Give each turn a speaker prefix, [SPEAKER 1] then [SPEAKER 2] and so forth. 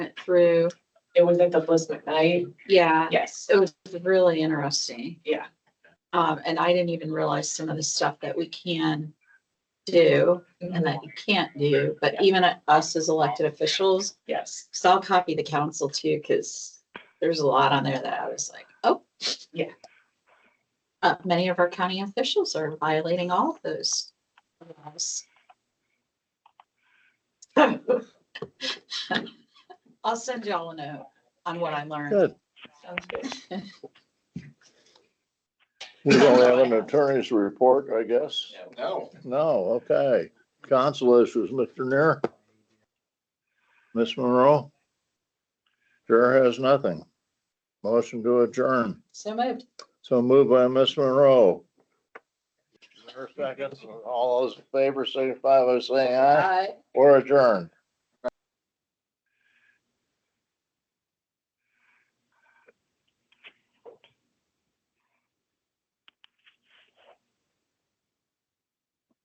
[SPEAKER 1] through,
[SPEAKER 2] It was at the Bliss McKnight.
[SPEAKER 1] yeah,
[SPEAKER 2] Yes.
[SPEAKER 1] it was really interesting.
[SPEAKER 2] Yeah.
[SPEAKER 1] Um, and I didn't even realize some of the stuff that we can do and that you can't do, but
[SPEAKER 2] Yeah.
[SPEAKER 1] even us as elected officials,
[SPEAKER 2] Yes.
[SPEAKER 1] so I'll copy the council too, because there's a lot on there that I was like, oh.
[SPEAKER 2] Yeah.
[SPEAKER 1] Uh, many of our county officials are violating all of those. laws.
[SPEAKER 2] Sounds
[SPEAKER 1] I'll send y'all a note on what I learned.
[SPEAKER 3] Good.
[SPEAKER 2] good.
[SPEAKER 3] We don't have an attorney's report, I guess.
[SPEAKER 4] No.
[SPEAKER 3] No, okay. Council issues, Mr. Neer. Ms. Monroe. Chair has nothing. Motion to adjourn.
[SPEAKER 1] So moved.
[SPEAKER 3] So moved by Ms. Monroe. Is there a second? All those in favor signify by saying aye
[SPEAKER 1] Bye.
[SPEAKER 3] or adjourn.